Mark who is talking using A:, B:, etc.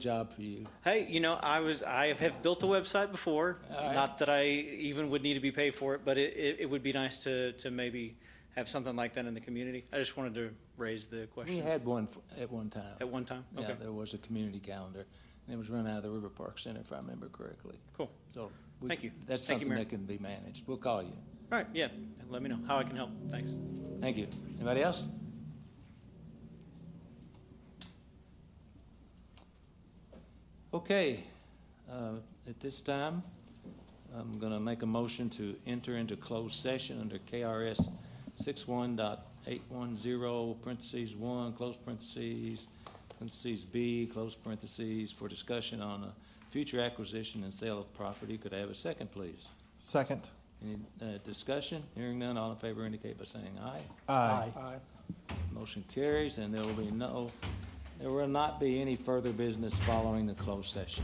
A: job for you.
B: Hey, you know, I was, I have built a website before.
A: All right.
B: Not that I even would need to be paid for it, but it, it, it would be nice to, to maybe have something like that in the community. I just wanted to raise the
A: We
B: question
A: had one f- at one time.
B: Oh, at one time.
A: Yeah,
B: Okay,
A: there was a community calendar, and it was run out of the River Park Center, if I remember correctly.
B: cool.
A: So. we-
B: Thank you.
A: That's
B: Thank you,
A: something
B: Mayor.
A: that can be managed. We'll call you.
B: All right, yeah, let me know how I can help. Thanks.
A: Thank you. Anybody else? Okay, uh, at this time, I'm going to make a motion to enter into closed session under KRS 61.810 parentheses one, close parentheses, parentheses B, close parentheses, for discussion on a future acquisition and sale of property. Could I have a second, please?
C: Second.
A: Any uh, discussion? Hearing none, all in favor indicate by saying aye.
C: Aye.
A: Motion carries, and there will be no, there will not be any further business following the closed session.